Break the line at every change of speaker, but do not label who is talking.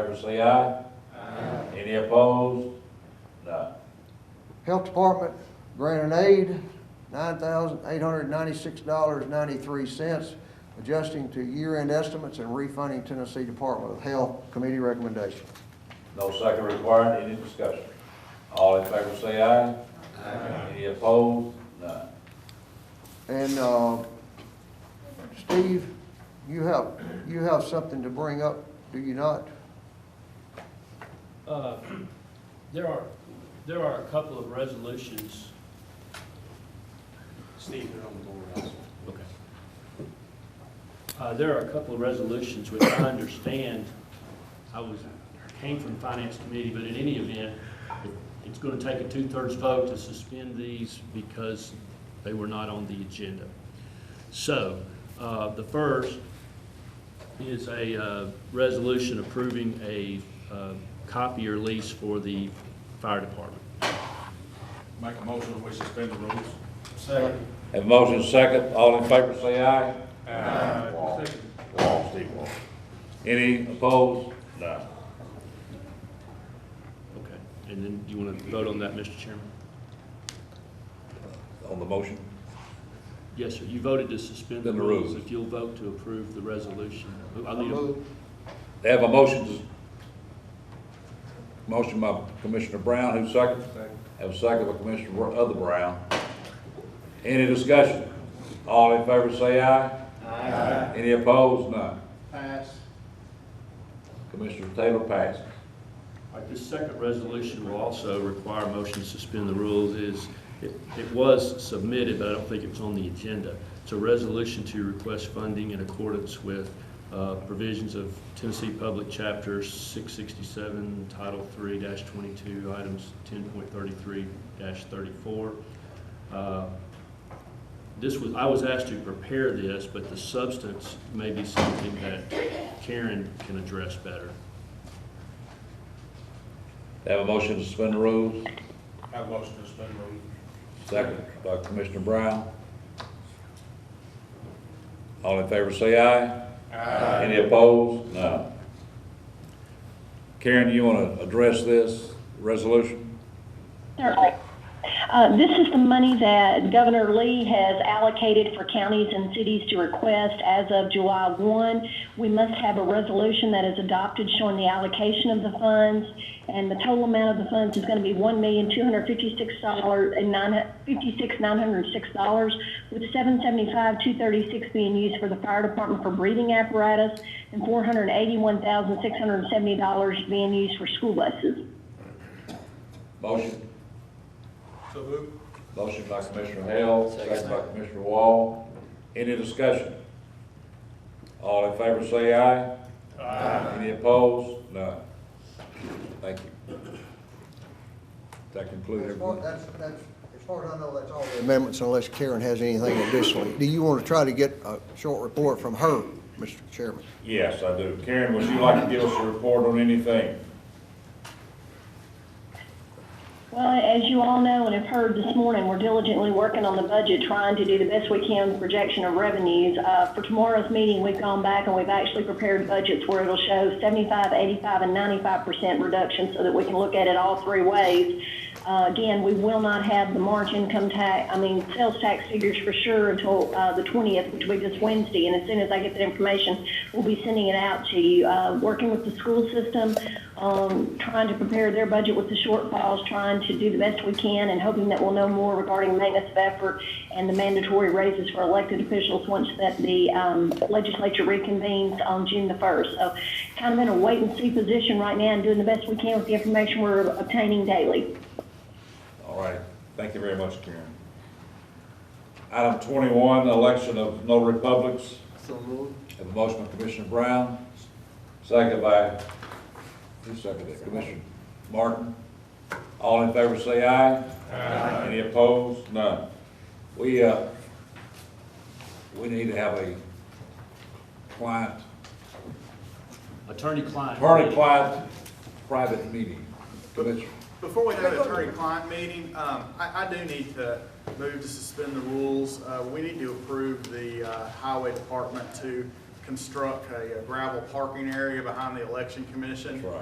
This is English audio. favor say aye. Any opposed? None.
Health Department grant and aid, nine thousand eight hundred ninety-six dollars ninety-three cents, adjusting to year-end estimates and refunding Tennessee Department of Health Committee recommendation.
No second required, any discussion? All in favor say aye. Any opposed? None.
And, uh, Steve, you have, you have something to bring up, do you not?
Uh, There are, there are a couple of resolutions.
Steve, they're on the board also.
Okay. Uh, there are a couple of resolutions which I understand, I was, came from Finance Committee, but in any event, it- it's gonna take a two-thirds vote to suspend these because they were not on the agenda. So, uh, the first is a, uh, resolution approving a, uh, copier lease for the fire department.
Make a motion that we suspend the rules.
Have motion second, all in favor say aye. Aye. Wall, Wall, Steve Wall. Any opposed? None.
Okay, and then you wanna vote on that, Mr. Chairman?
On the motion?
Yes, sir, you voted to suspend the
Then the
rules.
rules.
If you'll vote to approve the resolution, I need a,
Move.
They have a motion, to- motion by Commissioner Brown, who's second? Have a second by Commissioner Br- Other Brown. Any discussion? All in favor say aye. Aye. Any opposed? None.
Pass.
Commissioner Taylor passed.
all right, this second resolution will also require a motion to suspend the rules is, it, it was submitted, but I don't think it was on the agenda. It's a resolution to request funding in accordance with, uh, provisions of Tennessee Public Chapter six sixty-seven, Title three twenty-two, items ten point thirty-three thirty-four. Uh, this was, I was asked to prepare this, but the substance may be something that Karen can address better.
They have a motion to suspend the rules,
Have a motion to suspend the rules.
second by Commissioner Brown. All in favor say aye. Aye. Any opposed? None. Karen, you want to address this resolution?
Certainly. Uh, This is the money that Governor Lee has allocated for counties and cities to request as of July 1. We must have a resolution that is adopted showing the allocation of the funds, and the total amount of the funds is going to be $1,256,906, with $775,236 being used for the fire department for breathing apparatus and $481,670 being used for school buses.
Motion?
So moved.
Motion by Commissioner Hale, second by Commissioner Wall. Any discussion? All in favor say aye. Aye. Any opposed? None. Thank you. That concludes
As far,
everyone.
that's, that's, as far as I know, that's all the amendments unless Karen has anything additionally. Do you want to try to get a short report from her, Mr. Chairman?
Yes, I do. Karen, would you like to give us a report on anything?
Well, as you all know and have heard this morning, we're diligently working on the budget, trying to do the best we can with projection of revenues. Uh, for tomorrow's meeting, we've gone back and we've actually prepared budgets where it'll show 75, 85, and 95% reduction so that we can look at it all three ways. Uh, again, we will not have the March income tax, I mean, sales tax figures for sure until, uh, the 20th, which will be this Wednesday. And as soon as I get that information, we'll be sending it out to you. Uh, working with the school system, um, trying to prepare their budget with the shortfalls, trying to do the best we can and hoping that we'll know more regarding maintenance of effort and the mandatory raises for elected officials once that the, um, legislature reconvenes on June the 1st. So kind of in a wait and see position right now and doing the best we can with the information we're obtaining daily.
All right. Thank you very much, Karen. Item twenty-one, election of no republics.
So moved.
Have a motion by Commissioner Brown, second by, who seconded it? Commissioner Martin. All in favor say aye. Aye. Any opposed? None. We, uh, we need to have a client,
Attorney-client.
attorney-client private meeting. Commissioner,
Before we have an attorney-client meeting, um, I, I do need to move to suspend the rules. Uh, we need to approve the, uh, highway department to construct a gravel parking area behind the election commission.
That's right.